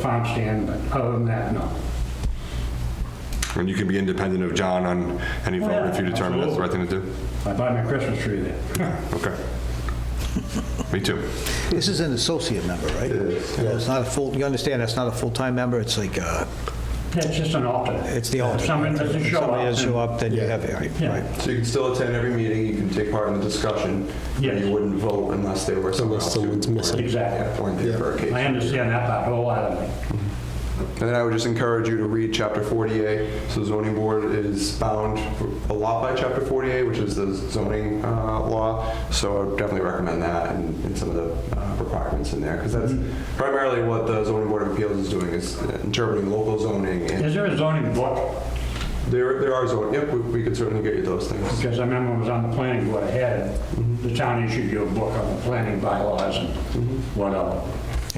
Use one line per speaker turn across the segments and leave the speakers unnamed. farm stand, but other than that, no.
And you can be independent of John on any vote if you
yeah,
determine that's the right thing to do?
I buy my Christmas tree there.
Okay. Me too.
This is an associate member, right? Yeah, It's not a full, you understand, that's not a full-time member, it's like, uh,
It's just an alternate.
it's the alternate.
If someone doesn't
If
show up.
Somebody doesn't
then-
show up, then you have, it, right,
Yeah.
right.
So you can still attend every meeting, you can take part in the discussion, but
Yes.
you wouldn't vote unless they were somewhere
Unless
else.
someone's missing.
Exactly.
Or in there for a case.
I understand that part wholeheartedly.
And then I would just encourage you to read Chapter 48. So the zoning board is bound a lot by Chapter 48, which is the zoning uh, law. So I would definitely recommend that and and some of the uh, requirements in there. Because that's primarily what the zoning board of appeals is doing, is uh, interpreting local zoning. And
Is there a zoning book?
there there are zoning, yep, we- we could certainly get you those things.
Because I remember when I was on the planning board, I had, it.
Mm-hmm.
the town issued you a book on the planning bylaws and
Mm-hmm.
whatever.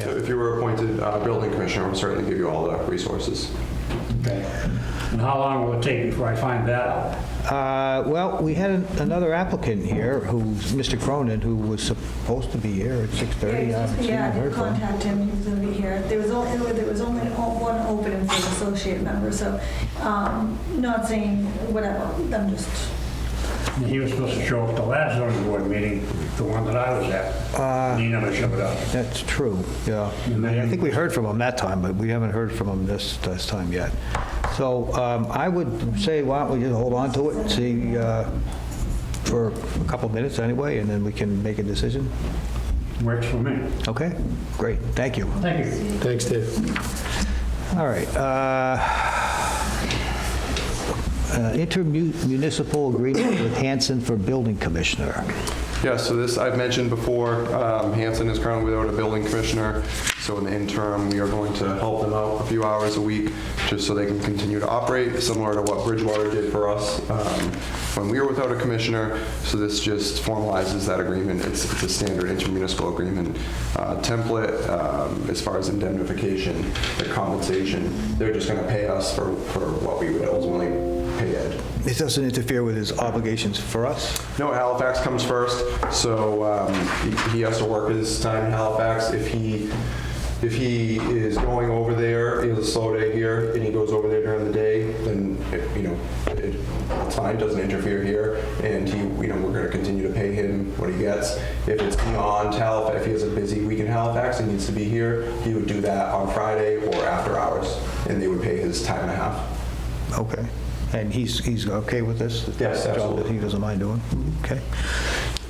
So If you were appointed uh, building commissioner, we'll certainly give you all the resources.
Okay. And how long will it take before I find that out?
Uh, Well, we had an- another applicant here, who's Mr. Cronin, who was supposed to be here at 6:30. I
Yeah,
haven't seen
I
him,
did
heard from him.
contact him, he was gonna be here. There was only, there was only o- one opening for an associate member, so, um, not saying whatever, I'm just,
And He was supposed to show up at the last zoning board meeting, the one that I was
Uh,
at, and he never showed up.
That's true, yeah.
And
I
then-
think we heard from him that time, but we haven't heard from him this, this time yet. So um, I would say, why don't we just hold on to it, and see, uh, for a couple minutes anyway, and then we can make a decision?
Works for me.
Okay, great, thank you.
Thank you.
Thanks, Dave.
All right. uh, uh, Intermunicipal agreement with Hanson for building commissioner.
Yeah, so this, I've mentioned before, um, Hanson is currently without a building commissioner, so in the interim, we are going to help them out a few hours a week, just so they can continue to operate, similar to what Bridgewater did for us um, when we were without a commissioner. So this just formalizes that agreement. It's it's a standard intermunicipal agreement uh, template um, as far as indemnification, the compensation. They're just going to pay us for for what we would ultimately pay Ed.
This doesn't interfere with his obligations for us?
No, Halifax comes first, so um, he- he has to work his time in Halifax. If he, if he is going over there, he has a slow day here, and he goes over there during the day, then, it- you know, it- it's fine, doesn't interfere here, and he, you know, we're going to continue to pay him what he gets. If it's beyond Halifax, if he has a busy week in Halifax and needs to be here, he would do that on Friday or after hours, and they would pay his time and a half.
Okay. And he's, he's okay with this?
Yes,
Job that
absolutely.
He doesn't mind doing? Okay.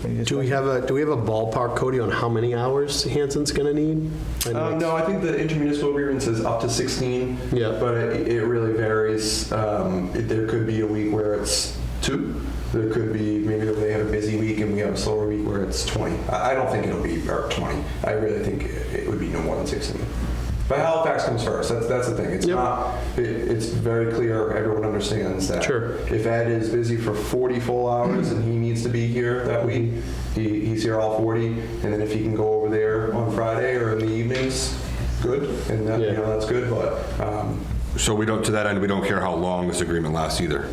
Any
Do we have a, do we have a ballpark, Cody, on how many hours Hanson's going to need? I know
Um,
it's-
no, I think the intermunicipal agreement says up to 16.
Yeah.
But it, it really varies. Um, it- there could be a week where it's two. There could be maybe they have a busy week and we have a slower week where it's 20. I, I don't think it'll be or 20. I really think it, it would be no more than 16. But Halifax comes first. That's, that's the thing. It's
Yep.
not. It, it's very clear. Everyone understands that.
Sure.
If Ed is busy for 40 full hours and he needs to be here that week, he, he's here all 40. And then if he can go over there on Friday or in the evenings, good. And that, you
Yeah.
know, that's good. But um,
So we don't, to that end, we don't care how long this agreement lasts either.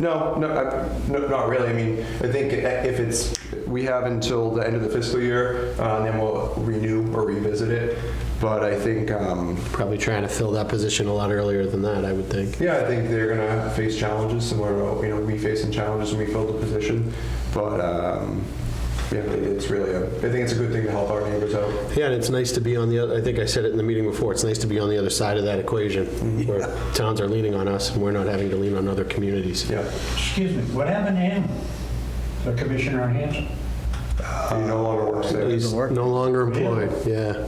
no, no, I, no, not really. I mean, I think if it's, we have until the end of the fiscal year, uh, and then we'll renew or revisit it. But I think, um,
Probably trying to fill that position a lot earlier than that, I would think.
Yeah, I think they're gonna face challenges similar to you know we facing challenges when we filled the position, but um, yeah, it's really a, I think it's a good thing to help our neighbors out.
Yeah, and it's nice to be on the, oth- I think I said it in the meeting before, it's nice to be on the other side of that equation, where towns are leaning on us and we're not having to lean on other communities.
Yeah,
Excuse me, what happened to him? The commissioner on Hanson?
he no longer works there.
He's
work.
no longer employed, yeah.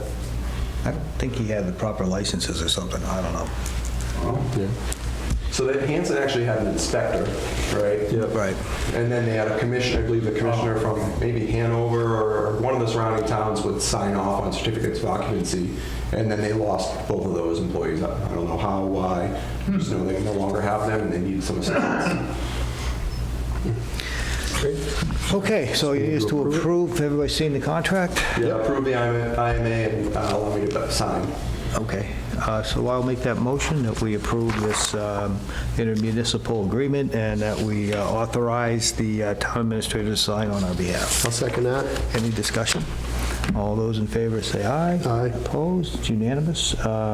I don't think he had the proper licenses or something, I don't know.
So that Hanson actually had an inspector, right?
Right.
And then they had a commissioner, I believe the commissioner from maybe Hanover or one of the surrounding towns would sign off on certificates of occupancy. And then they lost both of those employees. I I don't know how, why, just know they no longer have them and they need some assistance.
Okay, so it is to approve, everybody's seen the contract?
Yeah, approve the IMA IMA and uh, allow me to sign.
Okay, uh, so I'll make that motion that we approve this um, intermunicipal agreement and that we uh, authorize the uh, town administrator to sign on our behalf.
I'll second that.
Any discussion? All those in favor say aye.
Aye.
Opposed? It's unanimous. Uh,